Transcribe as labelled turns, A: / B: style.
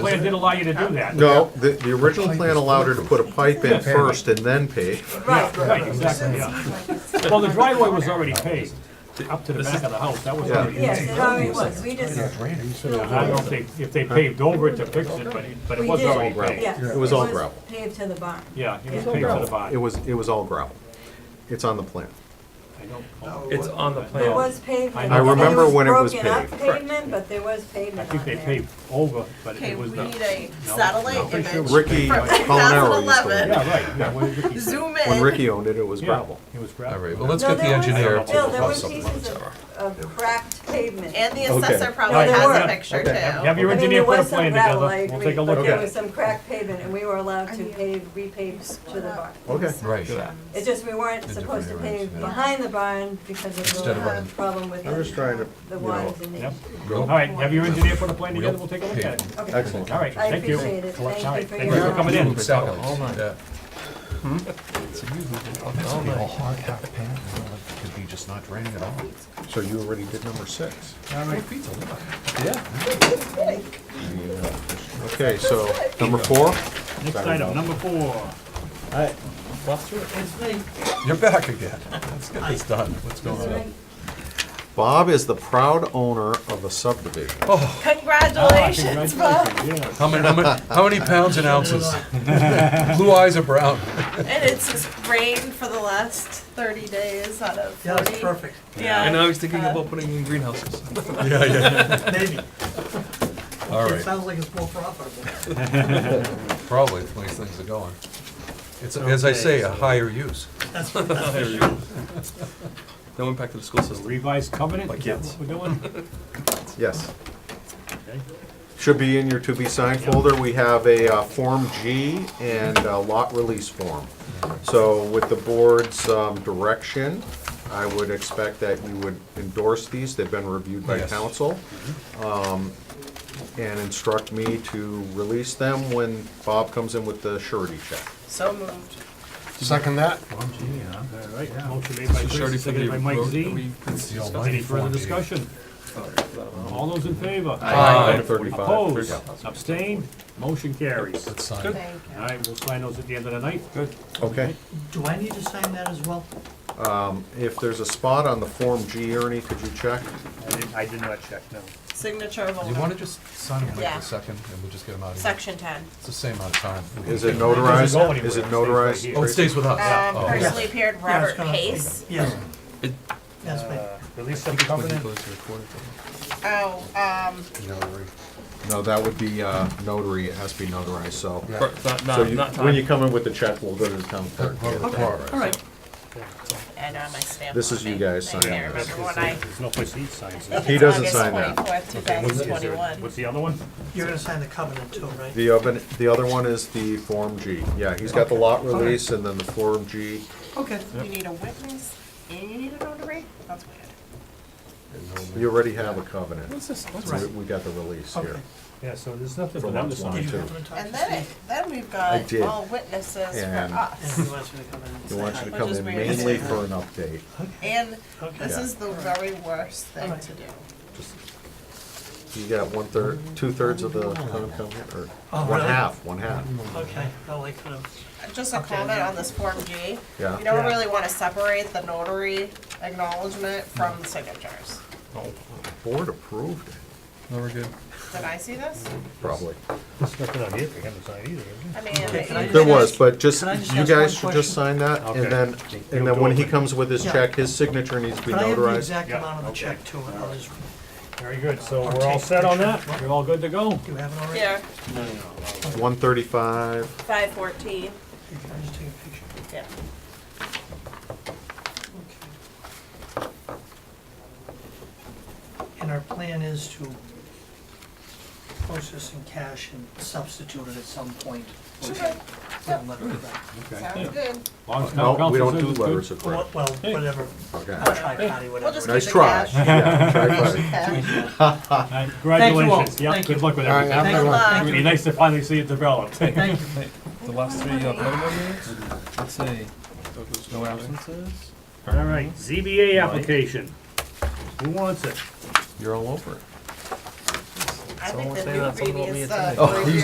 A: plan did allow you to do that.
B: No, the, the original plan allowed her to put a pipe in first and then pave.
C: Right.
A: Right, exactly, yeah. Well, the driveway was already paved, up to the back of the house, that was
B: Yeah.
A: already.
C: Yes, it already was, we just,
A: I don't think, if they paved over it to fix it, but, but it
C: we
A: was
C: did,
A: already paved.
C: yeah.
B: It was all gravel.
C: Paved to the barn.
A: Yeah, it was
C: Yeah.
A: paved to the
B: It
A: bottom.
B: was, it was all gravel. It's on the plan.
A: I don't-
D: It's on the
C: There
D: plan.
C: was pavement.
A: I
B: remember when it was
C: Broken up
B: paved, correct.
C: pavement, but there was
A: I
C: pavement on
A: think they
C: there.
A: paved over, but
E: Okay,
A: it
E: we
A: was not.
E: need a satellite
A: Pretty sure
E: image.
B: Ricky Colanero used to live
E: 2011.
A: Yeah, right, yeah, what did Ricky say?
E: Zoom
B: When
E: in.
B: Ricky owned it, it was
A: Yeah,
B: gravel.
A: it was
D: All right,
A: gravel.
D: well, let's
C: No,
D: get the
C: there was-
D: engineer
C: Bill,
D: to
C: there
D: pop
C: were
D: something
C: pieces
D: on
C: of, of cracked pavement.
E: And the
B: Okay.
E: assessor probably
C: Yeah,
E: has
C: there
E: a
C: were.
E: picture
B: Okay.
A: Have
E: too.
A: your
C: I mean,
A: engineer
C: there
A: put a
C: was some
A: plan
C: gravel,
A: together,
C: I
A: we'll
C: agree,
A: take a
C: but
A: look
C: there
A: at
C: was
A: it.
C: some cracked pavement, and we were allowed to pave, repave to the barn.
B: Okay.
D: Right.
C: It's just we weren't supposed to
D: different areas,
C: pave
D: yeah.
C: behind the barn because of
D: Instead of
C: the uh,
D: running-
C: problem with
B: I'm just trying to,
C: the the
B: you
C: wands
B: know,
C: and the.
A: Yep. All right, have your engineer put a plan together, we'll take a look at it.
C: Okay,
B: Excellent.
A: All right,
C: I
A: thank you.
C: appreciate it,
A: All
C: thank you
A: right,
C: for
A: thank
C: your
A: you for
C: help.
A: coming in. Hmm?
D: Seconds,
F: Oh,
D: yeah.
F: Could be just not draining at all.
B: So you already did number six.
D: Yeah.
B: Okay, so number four?
A: Next item, number four.
D: You're back again. Let's get this done. What's going on?
B: Bob is the proud owner of a subdivision.
E: Congratulations, Bob.
A: Yes.
D: How many, how many, how many pounds and ounces? Blue eyes are brown.
E: And it's just rained for the last thirty days out of
G: Yeah,
E: forty.
G: that's perfect.
E: Yeah.
D: I was thinking about putting in greenhouses. Yeah, yeah.
G: Maybe.
D: All
G: It
D: right,
G: sounds like it's more profitable.
D: probably, the way things are going. It's, as I say, a higher use.
G: That's what that's for sure.
D: No impact to the school system.
A: Revised covenant, is that
D: kids.
A: what we're doing?
B: Yes.
A: Okay.
B: Should be in your to be signed folder. We have a uh, Form G and a lot release form. So with the board's um, direction, I would expect that you would endorse these. They've been reviewed by
D: Yes.
B: council. um, And instruct me to release them when Bob comes in with the surety check.
E: So moved.
F: Second that?
A: All right, motion made by
D: Surety
A: Chris,
D: for the
A: seconded by Mike
D: road that
A: Z.
D: we- it's the almighty
A: Any further
D: Form G.
A: discussion? All those in favor?
D: Aye.
B: Item 35.
A: Opposed, abstained, motion carries.
D: Let's sign.
E: Thank you.
A: All right, we'll sign those at the end of the night. Good.
B: Okay.
G: Do I need to sign that as well?
B: If there's a spot on the Form G, Ernie, could you check?
A: I did, I did not check, no.
E: Signature of
D: You wanna
E: owner.
D: just sign them like
E: Yeah.
D: a second, and we'll just get them out of here?
E: Section ten.
D: It's the same amount of time.
B: Is it
A: Doesn't go
B: notarized?
A: anywhere.
B: Is it
A: It stays right
B: notarized?
A: here.
D: Oh, it stays with us?
E: Um,
D: Oh, okay.
E: personally appeared
G: Yeah, it's
E: Robert
G: gonna-
E: Pace.
G: Yes.
D: It-
G: Yes, ma'am.
A: Uh, Release of the covenant,
E: Oh, um,
D: Uh,
B: No, that would be uh, notary, it has to be notarized, so.
D: Not,
B: So you- when you come in with the check, we'll go to the town clerk.
D: All right.
E: and on my stamp.
B: This
E: on
B: is you
E: me.
B: guys
E: I
B: signing
E: can't
B: this.
E: remember when I.
A: there's no place he signs
E: I think
A: it.
B: He
E: it's
B: doesn't
E: August
B: sign that.
E: 24th,
A: What's the- is there-
E: 2021.
A: What's the other one?
G: You're gonna sign the covenant too, right?
B: The other, the other one is the Form G. Yeah, he's got the lot release and then the Form G.
G: Okay.
E: You need a witness and you need a notary? That's weird.
B: You already have a covenant.
D: What's this? What's
B: We-
D: this?
B: We got the release
G: Okay.
B: here.
A: Yeah, so there's nothing
B: For
A: for them to
B: lot
A: sign.
B: one.
G: Did you
B: Two.
G: happen to talk to
E: And then, it-
G: Steve?
E: then we've
B: I
E: got
B: did.
E: all witnesses
B: And-
E: for
G: And
E: us.
G: he wants me to come in and
B: He
G: say
B: wants you
G: hi.
B: to come
E: Which is
B: in
E: weird.
B: mainly for an update.
E: And this
B: Yeah.
E: is the very worst thing to do.
B: You got one third, two thirds of the town covenant, or
G: Oh,
B: one
G: really?
B: half, one half.
D: Mm-hmm.
G: Okay, well, I could have,
E: Just a comment on this Form G.
B: Yeah.
E: You don't
G: Yeah.
E: really want to separate the notary acknowledgement from the signatures.
B: Board approved it,
D: No, we're good.
E: Did I see this?
B: probably.
A: There's nothing on here for him to sign either, is there?
E: I mean. you
B: There
E: guys-
B: was, but just,
G: Can I just
B: you
G: ask
B: guys
G: one
B: should just sign
G: question?
B: that,
A: Okay.
B: and then,
A: You'll
B: and then when
A: do
B: he
A: it.
B: comes with his
G: Yeah.
B: check, his signature needs to be
G: could I have the
B: notarized.
G: exact
A: Yeah,
G: amount of the
A: okay.
G: check too? and I'll just-
A: Very good, so
G: Or
A: we're all
G: take
A: set on
G: picture.
A: that? We're all good to go?
G: Do you have it already?
E: Here,
B: One thirty-five,
E: five fourteen.
G: Here, Can I just take a picture?
E: Yeah.
G: Okay. And our plan is to post this in cash and substitute it at some point. with
E: Sure.
G: a letter of credit.
E: Sounds good.
A: Long as town
B: no, we
A: council
B: don't
A: says
B: do
A: it's good.
B: letters of
G: Well,
B: credit,
G: well, whatever,
B: okay.
G: I'll try party,
E: We'll
G: whatever.
E: just
G: it
B: Nice
G: is.
E: keep the
B: try.
E: cash.
B: Yeah, try five.
A: All
E: Cash.
A: right,
G: you all.
A: Congratulations, yeah,
G: Thank you.
A: good luck with
F: All right, have
A: everything.
F: a good one.
E: Bye.
A: It'd be nice to finally see it developed.
G: Thank you.
D: The last three, uh, Let's see. No absences?
A: All right, ZBA application. Who wants it?
B: You're all over it.
E: I
H: Someone
E: think the uh,
H: say
E: new
H: that, something about
E: read
H: me
E: is
H: attending.
B: Oh,
E: the. three-year